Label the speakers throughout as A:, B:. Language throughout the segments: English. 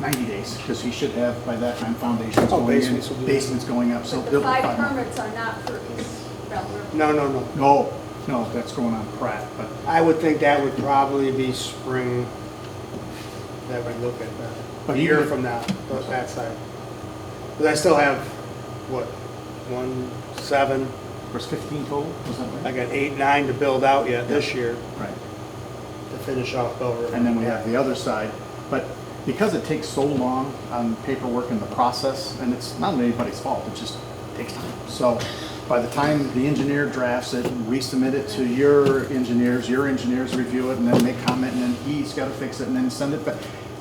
A: 90 days, because he should have, by that time, foundations
B: Oh,
A: going
B: basements will
A: in,
B: be-
A: basements going up, so.
C: But
A: they'll
C: the
A: be
C: five
A: fine.
C: permits are not for East Bell River.
B: No, no, no.
A: No, no, that's going on Pratt, but
B: I would think that would probably be spring that we look at that.
A: But
B: A year
A: even-
B: from now, but that side. Because I still have, what, one, seven,
A: there's 15 total, was that
B: I
A: right?
B: got eight, nine to build out yet this year
A: Right.
B: to finish off Bell River.
A: And then we have the other side, but because it takes so long on paperwork and the process, and it's not anybody's fault, it just takes time. So by the time the engineer drafts it, we submit it to your engineers, your engineers review it, and then they comment, and then he's gotta fix it, and then send it back.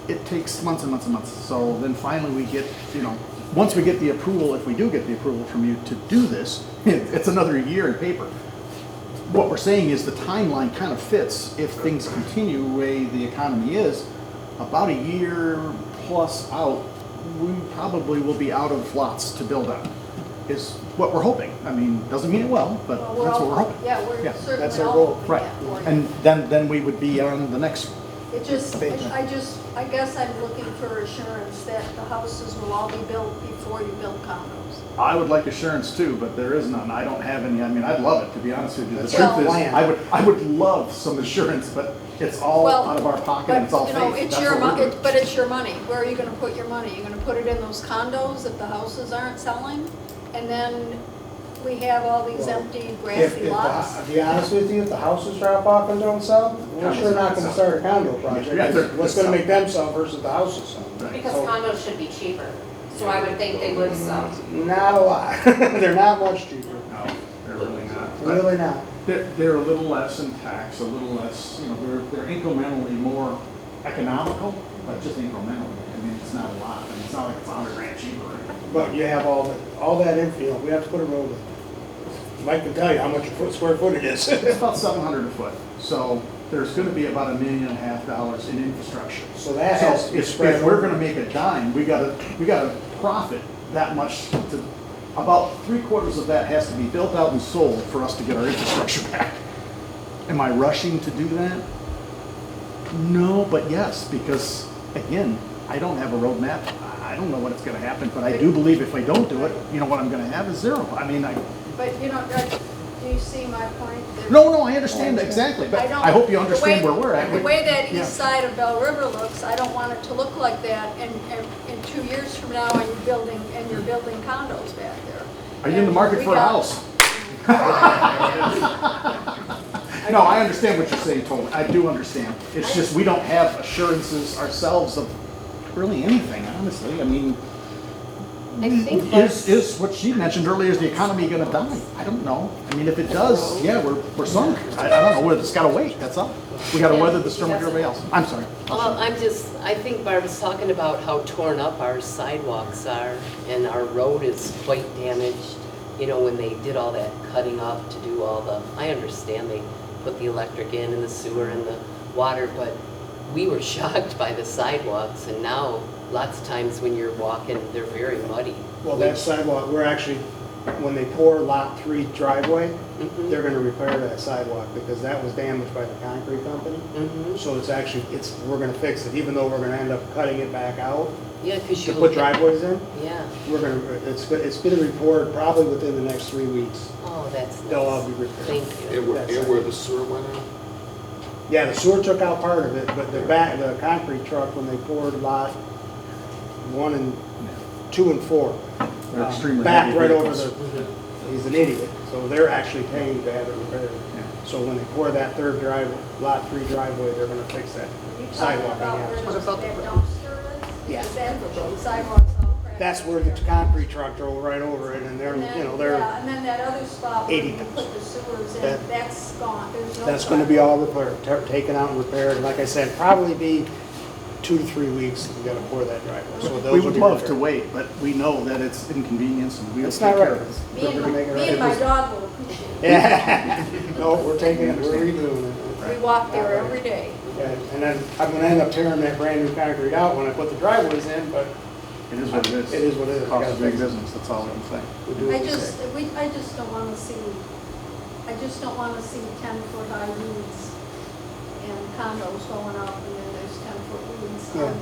A: It takes months and months and months, so then finally we get, you know, once we get the approval, if we do get the approval from you to do this, it's another year in paper what we're saying is the timeline kind of fits if things continue the way the economy is. About a year plus out, we probably will be out of lots to build on, is what we're hoping. I mean, doesn't mean it will, but
C: Well,
A: that's
C: all-
A: what we're hoping.
C: Yeah, we're
A: Yeah,
B: that's
C: certainly
B: our
C: all
B: goal.
C: hoping
A: Right,
C: that for you.
A: and then, then we would be on the next,
C: It just,
B: Thank you.
C: I just, I guess I'm looking for assurance that the houses will all be built before you build condos.
A: I would like assurance too, but there is none. I don't have any, I mean, I'd love it, to be honest with you. The
B: That's
A: truth is,
C: our
B: plan.
A: I would, I would love some assurance, but it's all
C: Well,
A: out of our pocket,
C: But,
A: and it's all
C: you
A: faith.
C: know, it's
A: That's
C: your
A: what we're
C: mon-
A: doing.
C: it- But it's your money. Where are you gonna put your money? You're gonna put it in those condos if the houses aren't selling? And then we have all these
B: Well,
C: empty
B: If,
C: grassy
B: if,
C: lots?
B: the- to be honest with you, if the houses drop off and don't sell, we're
A: Condos
B: sure
A: don't
B: not gonna
A: sell.
B: start a condo project.
A: Yeah, they're-
B: What's gonna make them sell versus the houses sell?
A: Right.
D: Because condos should be cheaper, so I would think they would sell.
B: Not a lot. They're not much cheaper.
A: No, they're really not. But-
B: Really not.
A: They're, they're a little less in tax, a little less, you know, they're, they're incrementally more economical, but just incrementally. I mean, it's not a lot, I mean, it's not like it's a hundred grand cheaper. or anything.
B: But you have all the, all that infield, we have to put a road in. Mike can tell you how much a foot, square foot it is.
A: It's about seven hundred a foot, so there's gonna be about a million and a half dollars in infrastructure.
B: So that
A: So
B: has to be
A: if,
B: spread
A: if we're
B: over.
A: gonna make a dime, we gotta, we gotta profit that much to, about three quarters of that has to be built out and sold for us to get our infrastructure back. Am I rushing to do that? No, but yes, because again, I don't have a roadmap. I I don't know what it's gonna happen, but I do believe if I don't do it, you know, what I'm gonna have is zero. I mean, I,
C: But you know, Doug, do you see my point? That-
A: no, no, I understand exactly, but
C: don't-
A: I hope you
C: the
A: understand
C: way-
A: where we're at.
C: The way that
A: Yeah.
C: east side of Bell River looks, I don't want it to look like that and, and in two years from now, and you're building, and you're building condos back there.
A: Are you in the
C: And
A: market
C: we
A: for a
C: got-
A: house? No, I understand what you're saying, totally. I do understand. It's just, we don't have assurances ourselves of really anything, honestly. I mean,
D: I think
A: is,
D: that's,
A: is what she mentioned earlier, is the economy gonna die? I don't know. I mean, if it does, yeah, we're, we're sunk. I, I don't know, we just gotta wait, that's all. We gotta weather the storm like everybody else. I'm sorry.
E: Well, I'm just, I think Barb was talking about how torn up our sidewalks are, and our road is quite damaged, you know, when they did all that cutting up to do all the, I understand they put the electric in and the sewer and the water, but we were shocked by the sidewalks, and now lots of times when you're walking, they're very muddy.
B: Well, that sidewalk, we're actually, when they pour lot three driveway,
A: Mm-hmm.
E: Mhm.
B: they're gonna repair that sidewalk because that was damaged by the concrete company.
E: Mhm.
B: So it's actually, it's, we're gonna fix it, even though we're gonna end up cutting it back out
E: Yeah, 'cause
B: to
E: you.
B: put driveways in.
E: Yeah,
B: We're gonna, it's, it's gonna report probably within the next three weeks.
E: oh, that's nice.
B: They'll all be repaired.
E: Thank you.
F: And where, and where the sewer went out?
B: Yeah, the sewer took out part of it, but the back, the concrete truck, when they poured lot one and, two and four.
A: They're
B: uh,
A: extremely
B: Back
A: heavy
B: right over
A: vehicles.
B: the, he's an idiot, so they're actually paying to have it repaired.
A: Yeah.
B: So when they pour that third drive, lot three driveway, they're gonna fix that
C: Are you talking
B: sidewalk on
C: about
B: the
C: where
B: outside.
C: that dumpster is?
B: Yeah.
C: Is that where the sidewalks all cracked?
B: That's where the concrete truck drove right over it, and they're,
C: And then-
B: you know, they're,
C: Yeah, and then that other spot where
B: 80
C: you put the sewers in,
B: That-
C: that's gone, there's no.
B: that's gonna be all repaired, ta- taken out and repaired. Like I said, probably be two to three weeks, we gotta pour that driveway, so those
A: We
B: will
A: would
B: be
A: love to
B: repaired.
A: wait, but we know that it's inconvenience and we'll
B: It's
A: take
B: not
A: care
B: right.
A: of it.
C: Me and
B: They're
C: my,
B: gonna make it
C: me and
B: right.
C: my dog will appreciate it.
B: Yeah, no, we're taking it, we're redoing it.
C: We walk there every day.
B: Yeah, And then I'm gonna end up tearing that brand new concrete out when I put the driveways in, but
A: It is what it is.
B: It is what it is. We
A: Cost
B: gotta
A: of big
B: fix it.
A: business, that's all I can say.
B: we do
C: I
B: what we
C: just,
B: say.
C: we, I just don't wanna see, I just don't wanna see ten foot Um, high roofs and condos going up and then there's ten foot roofs
B: Yeah.
C: on